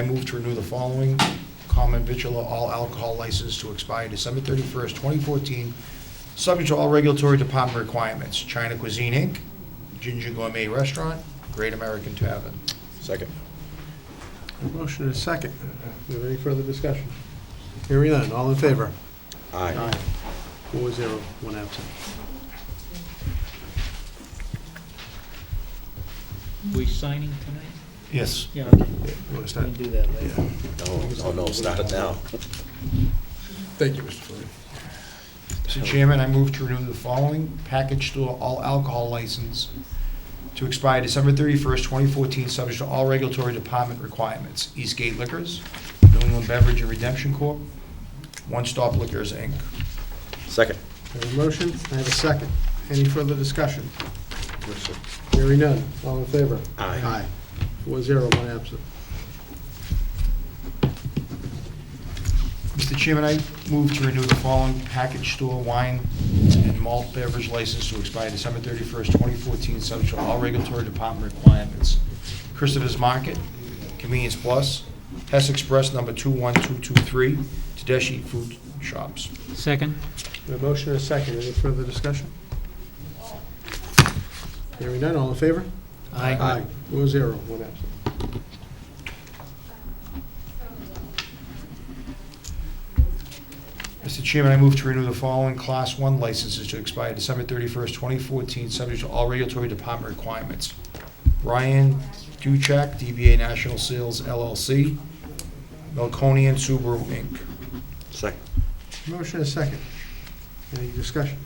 I move to renew the following common vitula all alcohol license to expire December 31st, 2014, subject to all regulatory department requirements. China Cuisine, Inc., Ginger Gourmet Restaurant, Great American Tavern. Second. Motion is second. Do we have any further discussion? Hearing none, all in favor? Aye. Four zero, one absent. We signing tonight? Yes. Yeah, okay. You want to we start? can do that later. Yeah. No, oh no, start it now. Thank you, Mr. Flynn. Mr. Chairman, I move to renew the following package store all alcohol license to expire December 31st, 2014, subject to all regulatory department requirements. Eastgate Liquors, New England Beverage and Redemption Corp., One Stop Liquors, Inc. Second. I have a motion, I have a second. Any further discussion? Hearing none, all in favor? Aye. Four zero, one absent. Mr. Chairman, I move to renew the following package store wine and malt beverage license to expire December 31st, 2014, subject to all regulatory department requirements. Christopher's Market, Convenience Plus, Hess Express Number 21223, Tedeschi Food Shops. Second? A motion is second, any further discussion? Hearing none, all in favor? Four zero, one absent. Mr. Chairman, I move to renew the following Class 1 licenses to expire December 31st, 2014, subject to all regulatory department requirements. Ryan Duchek, DBA National Sales LLC, Melconian Subaru, Inc. Second. Motion is second. Any discussion?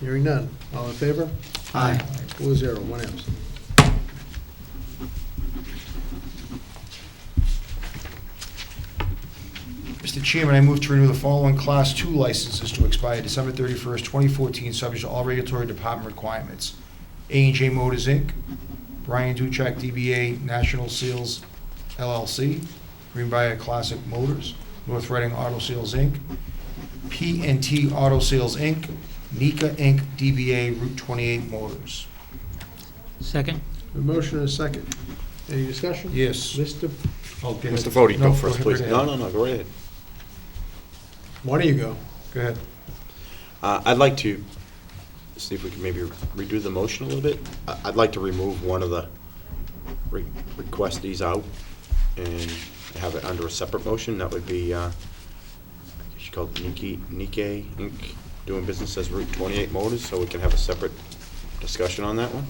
Hearing none, all in favor? Aye. Four zero, one absent. Mr. Chairman, I move to renew the following Class Two licenses to expire December 31st, 2014, subject to all regulatory department requirements. a and J Motors, Inc., Brian Duchek, DBA National Sales LLC, Greenbrier Classic Motors, North Reading Auto Sales, Inc., p and T Auto Sales, Inc., Nika, Inc., DBA Route 28 Motors. Second? A motion and a second. Any discussion? Yes. Mr., Mr. Mr. Fode, go first, please. No, no, no, go right ahead. why don't you go? Go ahead. Uh, I'd like to, see if we can maybe redo the motion a little bit. I- I'd like to remove one of the re- requestees out and have it under a separate motion. That would be, uh, she's called Nike, Nike Inc., doing business as Route 28 Motors, so we can have a separate discussion on that one.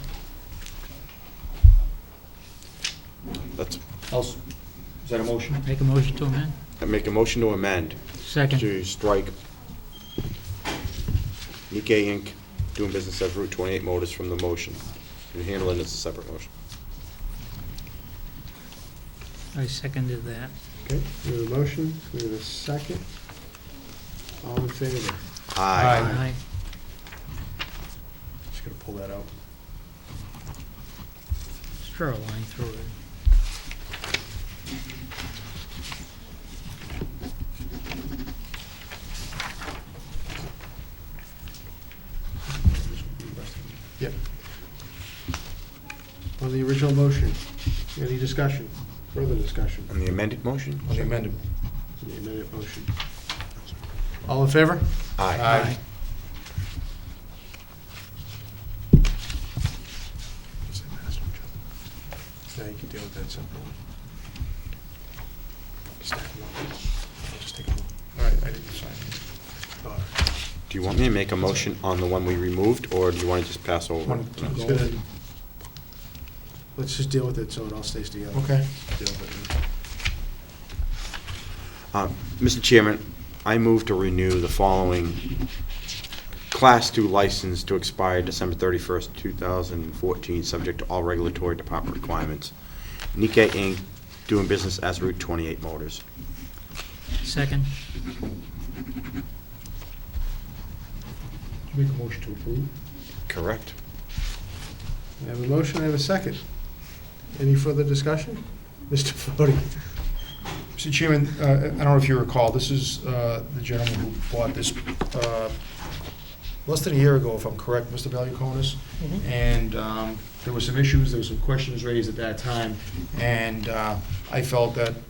That's, Else, is that a motion? Make a motion to amend? I make a motion to amend Second? to strike Nikkei Inc., doing business as Route 28 Motors from the motion, and handle it as a separate motion. I seconded that. Okay, we have a motion, we have a second. All in favor? Aye. Just gonna pull that out. Just Draw a line through it. Yep. On the original motion, any discussion? Further discussion On the amended motion? On the amendment. on the amended motion? All in favor? Aye. Yeah, you can deal with that separately. Stack them up. I'll just take them All right, I didn't sign. all. All right. Do you want me to make a motion on the one we removed, or do you want to just pass over? One, two, It's gonna- Let's just deal with it so it all stays together. Okay. Deal with it. Uh, Mr. Chairman, I move to renew the following Class 2 license to expire December 31st, 2014, subject to all regulatory department requirements. Nikkei Inc., doing business as Route 28 Motors. Second? Did you make a motion to approve? Correct. I have a motion, I have a second. Any further discussion? Mr. Fode? Mr. Chairman, uh, I don't know if you recall, this is uh, the gentleman who bought this uh, less than a year ago, if I'm correct, Mr. Valiakonis. And um, there were some issues, there were some questions raised at that time, and uh, I felt that